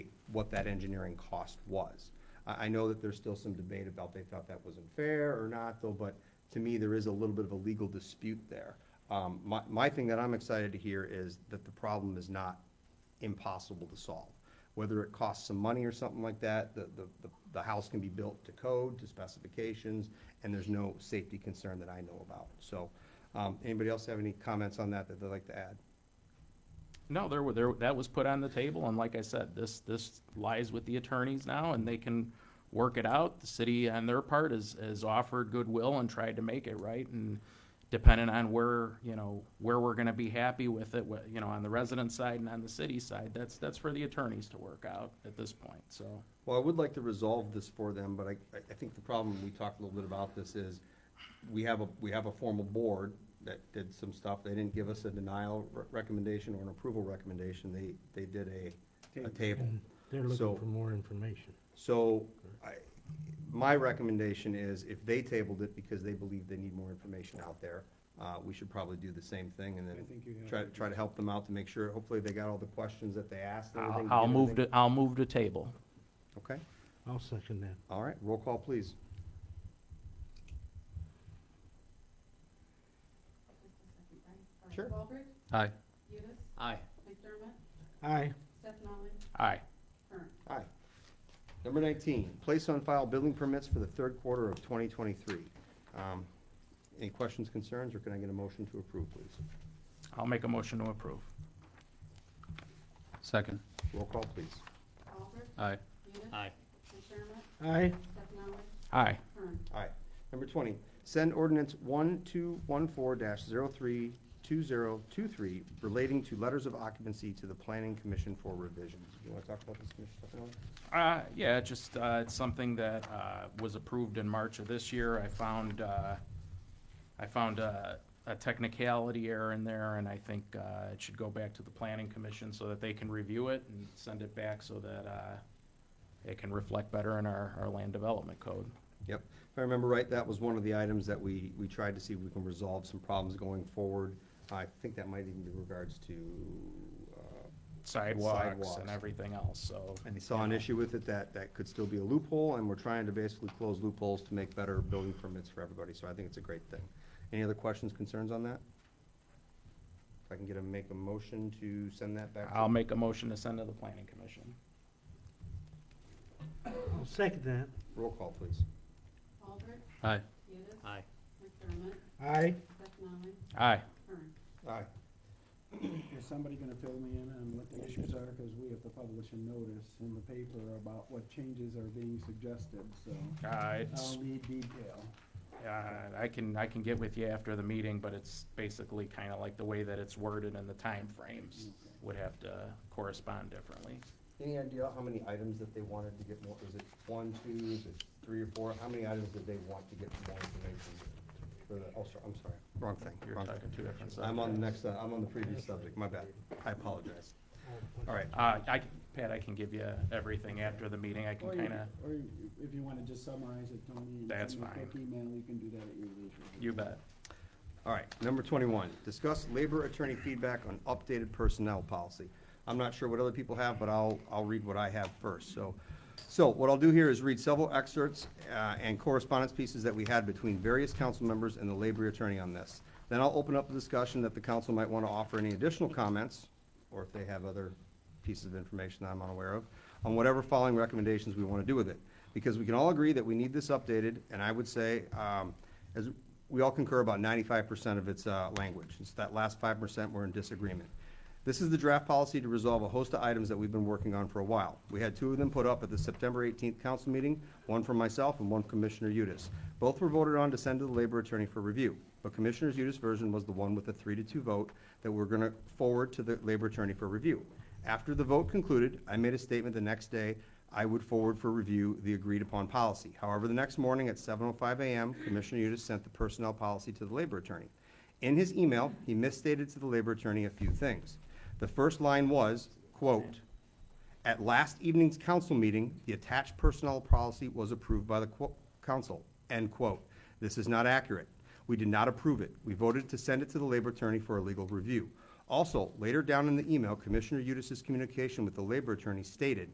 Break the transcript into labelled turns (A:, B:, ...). A: what that engineering cost was. I, I know that there's still some debate about they thought that wasn't fair or not, though, but to me, there is a little bit of a legal dispute there. Um, my, my thing that I'm excited to hear is that the problem is not impossible to solve. Whether it costs some money or something like that, the, the, the- the house can be built to code, to specifications, and there's no safety concern that I know about. So, um, anybody else have any comments on that that they'd like to add?
B: No, there were, there, that was put on the table, and like I said, this, this lies with the attorneys now, and they can work it out. The city on their part has, has offered goodwill and tried to make it right, and depending on where, you know, where we're gonna be happy with it, wh- you know, on the resident side and on the city side, that's, that's for the attorneys to work out at this point, so.
A: Well, I would like to resolve this for them, but I, I- I think the problem, we talked a little bit about this, is we have a, we have a formal board that did some stuff. They didn't give us a denial re- recommendation or an approval recommendation. They, they did a, a table.
C: Mm, They're
A: So-
C: looking for more information.
A: So I, my recommendation is if they tabled it because they believe they need more information out there, uh, we should probably do the same thing and then try, try to help them out to make sure, hopefully they got all the questions that they asked and
B: I'll,
A: everything.
B: I'll move to, I'll move to table.
A: Okay,
C: I'll second that.
A: all right, roll call, please. Sure.
D: Baldridge,
B: Aye.
D: Udis,
B: Aye.
D: McDermott,
C: Aye.
D: Stefani,
B: Aye.
D: Kern.
A: Aye. Number nineteen, place on file building permits for the third quarter of twenty twenty-three. Um, Any questions, concerns, or can I get a motion to approve, please?
B: I'll make a motion to approve.
E: Second.
A: Roll call, please.
D: Baldridge,
E: Aye.
D: Udis.
E: Aye.
D: McDermott,
C: Aye.
D: Stefani,
B: Aye.
D: Kern.
A: Aye. Number twenty, send ordinance one two one four dash zero three two zero two three relating to letters of occupancy to the planning commission for revisions. You wanna talk about this, Commissioner Stefano?
B: Uh, yeah, it just, uh, it's something that, uh, was approved in March of this year. I found, uh, I found a, a technicality error in there, and I think, uh, it should go back to the planning commission so that they can review it and send it back so that, uh, it can reflect better in our, our land development code.
A: Yep, if I remember right, that was one of the items that we, we tried to see if we can resolve some problems going forward. I think that might even be regards to, uh,
B: Sidewalks
A: Sidewalks.
B: and everything else, so.
A: And they saw an issue with it that, that could still be a loophole, and we're trying to basically close loopholes to make better building permits for everybody, so I think it's a great thing. Any other questions, concerns on that? If I can get a, make a motion to send that back? to-
B: I'll make a motion to send to the planning commission.
C: I'll second that.
A: Roll call, please.
D: Baldridge,
E: Aye.
D: Udis.
E: Aye.
D: McDermott,
C: Aye.
D: Stefani,
B: Aye.
D: Kern.
A: Aye.
F: Is somebody gonna fill me in on what the issues are, cause we have to publish a notice in the paper about what changes are being suggested, so
B: Uh, it's
A: Um,
F: I'll need detail.
B: Uh, I can, I can get with you after the meeting, but it's basically kind of like the way that it's worded and the timeframes would have to correspond differently.
A: Any idea how many items that they wanted to get more, is it one, two, is it three or four? How many items did they want to get more information? For the, oh, sorry, I'm sorry, wrong thing,
B: You're
A: wrong
B: talking
A: thing.
B: two different
A: I'm on the
B: subjects.
A: next, uh, I'm on the previous subject, my bad. I apologize. All right,
B: Uh, I, can- Pat, I can give you everything after the meeting. I can
F: Or you-
B: kind of,
F: Or you- if you wanna just summarize it, Tony. and send
B: That's
F: me a quick
B: fine.
F: Email, you can do that at your leisure.
B: you bet.
A: All right, number twenty-one, discuss labor attorney feedback on updated personnel policy. I'm not sure what other people have, but I'll, I'll read what I have first, so. So what I'll do here is read several excerpts, uh, and correspondence pieces that we had between various council members and the labor attorney on this. Then I'll open up the discussion that the council might want to offer any additional comments, or if they have other pieces of information that I'm unaware of, on whatever following recommendations we want to do with it. Because we can all agree that we need this updated, and I would say, um, as, we all concur about ninety-five percent of its, uh, language. It's that last five percent we're in disagreement. This is the draft policy to resolve a host of items that we've been working on for a while. We had two of them put up at the September eighteenth council meeting, one from myself and one from Commissioner Udis. Both were voted on to send to the labor attorney for review, but Commissioner Udis' version was the one with a three to two vote that we're gonna forward to the labor attorney for review. After the vote concluded, I made a statement the next day I would forward for review the agreed-upon policy. However, the next morning at seven oh five AM, Commissioner Udis sent the personnel policy to the labor attorney. In his email, he misstated to the labor attorney a few things. The first line was, quote, "At last evening's council meeting, the attached personnel policy was approved by the qu- council," end quote. This is not accurate. We did not approve it. We voted to send it to the labor attorney for a legal review. Also, later down in the email, Commissioner Udis's communication with the labor attorney stated,